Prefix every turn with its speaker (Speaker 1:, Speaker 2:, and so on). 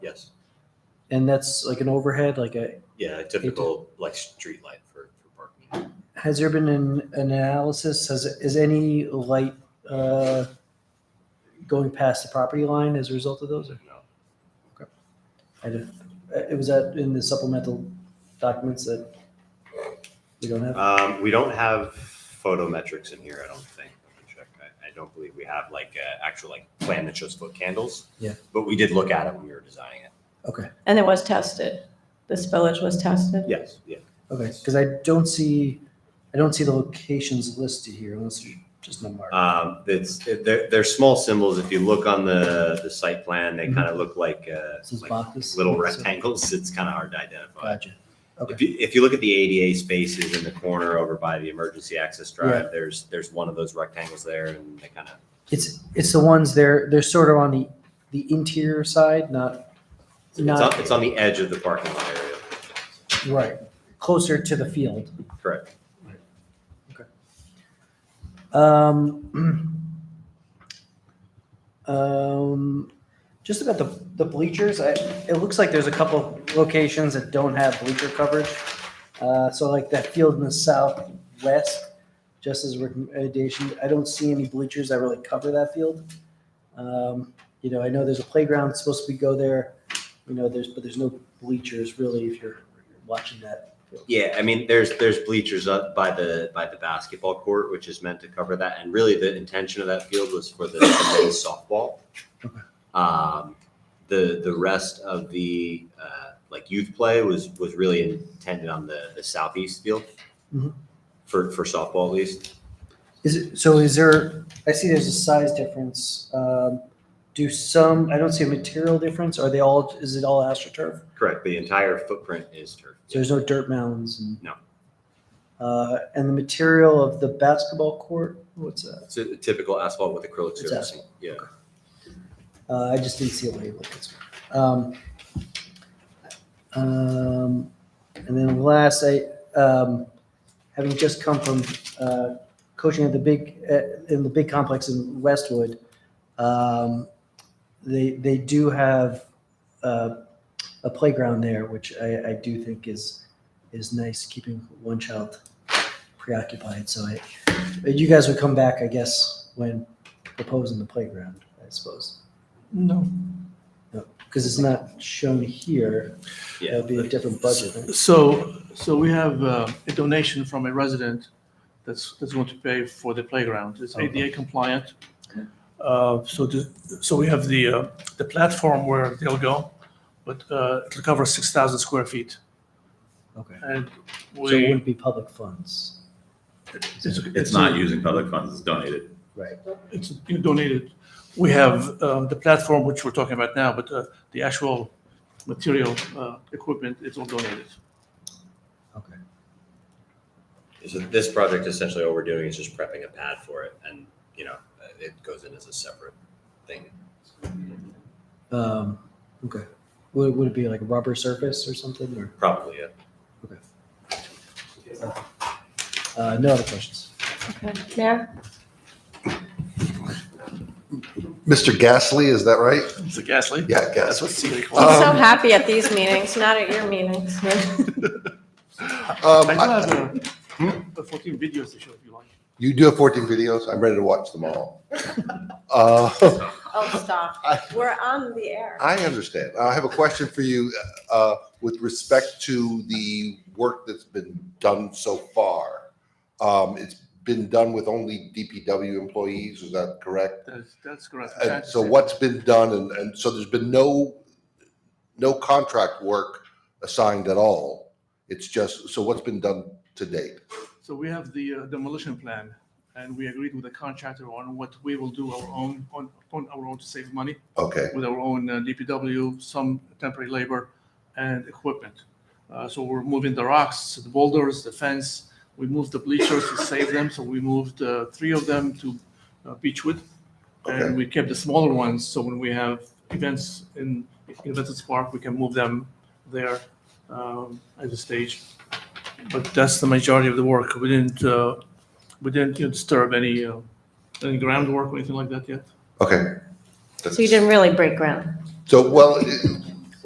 Speaker 1: And that's like an overhead, like a,
Speaker 2: Yeah, a typical like street light for, for parking.
Speaker 1: has there been an an analysis, has, is any light uh, going past the property line as a result of those? or-
Speaker 2: No.
Speaker 1: I don't- uh, It was that in the supplemental documents that we don't have?
Speaker 2: Um, we don't have photometrics in here, I don't think. Let me check. I, I don't believe we have like a actual like plan that shows foot candles.
Speaker 1: Yeah.
Speaker 2: But we did look at it when we were designing it.
Speaker 1: Okay,
Speaker 3: And it was tested. The spillage was tested.
Speaker 2: Yes, yeah.
Speaker 1: okay, because I don't see, I don't see the locations listed here unless there's just no mark.
Speaker 2: Um, it's, it- they're, they're small symbols. If you look on the, the site plan, they kind of look like, uh,
Speaker 1: Mm-hmm. This is
Speaker 2: like
Speaker 1: boxes.
Speaker 2: little
Speaker 1: So-
Speaker 2: rectangles. It's kind of hard to identify.
Speaker 1: Gotcha.
Speaker 2: If you, if you look at the ADA spaces in the corner over by the emergency access drive, there's, there's one of those rectangles there and they kind of,
Speaker 1: It's, it's the ones they're, they're sort of on the, the interior side, not,
Speaker 2: it's
Speaker 1: not,
Speaker 2: on, it's on the edge of the parking lot area.
Speaker 1: right, closer to the field.
Speaker 2: Correct.
Speaker 1: Um, um, just about the, the bleachers, I, it looks like there's a couple locations that don't have bleacher coverage. Uh, so like that field in the southwest, just as a recommendation, I don't see any bleachers that really cover that field. Um, you know, I know there's a playground supposed to be go there, you know, there's, but there's no bleachers really if you're watching that. field.
Speaker 2: Yeah, I mean, there's, there's bleachers up by the, by the basketball court, which is meant to cover that. And really the intention of that field was for the the men's softball.
Speaker 1: Okay.
Speaker 2: Um, the, the rest of the, uh, like youth play was, was really intended on the, the southeast field.
Speaker 1: Mhm.
Speaker 2: For, for softball at least.
Speaker 1: Is it, so is there, I see there's a size difference. Um, do some, I don't see a material difference. Are they all, is it all astroturf?
Speaker 2: Correct. The entire footprint is turf.
Speaker 1: So there's no dirt mounds and?
Speaker 2: No.
Speaker 1: Uh, and the material of the basketball court, what's that?
Speaker 2: It's a typical asphalt with acrylic
Speaker 1: It's
Speaker 2: surfacing. Yeah.
Speaker 1: Uh, I just didn't see a label. that's all. Um, um, and then last, I, um, having just come from, uh, coaching at the big, uh, in the big complex in Westwood, um, they, they do have, uh, a playground there, which I, I do think is, is nice, keeping one child preoccupied. So I, you guys would come back, I guess, when proposing the playground, I suppose.
Speaker 4: No.
Speaker 1: Because it's not shown here,
Speaker 2: Yeah.
Speaker 1: that'll be a different budget. right?
Speaker 4: So, so we have uh, a donation from a resident that's, that's going to pay for the playground. It's
Speaker 1: Okay.
Speaker 4: ADA compliant. Uh, So, the- so we have the, uh, the platform where they'll go, but uh, it'll cover 6,000 square feet.
Speaker 1: Okay.
Speaker 4: And
Speaker 1: So it
Speaker 4: we,
Speaker 1: wouldn't be public funds,
Speaker 4: it's,
Speaker 5: It's not using public funds, it's donated.
Speaker 1: right?
Speaker 4: It's you donated. We have um, the platform, which we're talking about now, but uh, the actual material, uh, equipment, it's all donated.
Speaker 1: Okay.
Speaker 2: So this project essentially all we're doing is just prepping a pad for it and, you know, it goes in as a separate thing.
Speaker 1: Um, okay. Would, would it be like a rubber surface or something, or,
Speaker 2: Probably, yeah.
Speaker 1: uh, no other questions?
Speaker 3: Okay. Mayor?
Speaker 6: Mr. Gasly, is that right?
Speaker 4: It's a gas leak.
Speaker 6: Yeah,
Speaker 4: That's what
Speaker 6: Gasly.
Speaker 4: Siri calls
Speaker 3: I'm
Speaker 4: it.
Speaker 3: so
Speaker 6: Um,
Speaker 3: happy at these meetings, not at your meetings.
Speaker 6: Um,
Speaker 4: I do
Speaker 6: I- Hmm?
Speaker 4: have uh, uh, 14 videos to show if you like.
Speaker 6: You do have 14 videos. I'm ready to watch them all. Uh,
Speaker 3: Oh, stop.
Speaker 6: I-
Speaker 3: We're on the air.
Speaker 6: I understand. I have a question for you uh, with respect to the work that's been done so far. Um, It's been done with only DPW employees, is that correct?
Speaker 4: That's, that's correct.
Speaker 6: And Uh, so what's been done, and, and so there's been no, no contract work assigned at all? It's just, so what's been done to date?
Speaker 4: So we have the uh, demolition plan and we agreed with the contractor on what we will do our own, on, on our own to save money
Speaker 6: Okay.
Speaker 4: with our own uh, DPW, some temporary labor and equipment. Uh, So we're moving the rocks, the boulders, the fence. We moved the bleachers to save them. So we moved uh, three of them to uh, Beechwood.
Speaker 6: Okay.
Speaker 4: And we kept the smaller ones. So when we have events in in Veterans Park, we can move them there um, as a stage. But that's the majority of the work. We didn't, uh, we didn't you know, disturb any, uh, any groundwork or anything like that yet.
Speaker 6: Okay.
Speaker 3: So you didn't really break ground.
Speaker 6: So, well, it-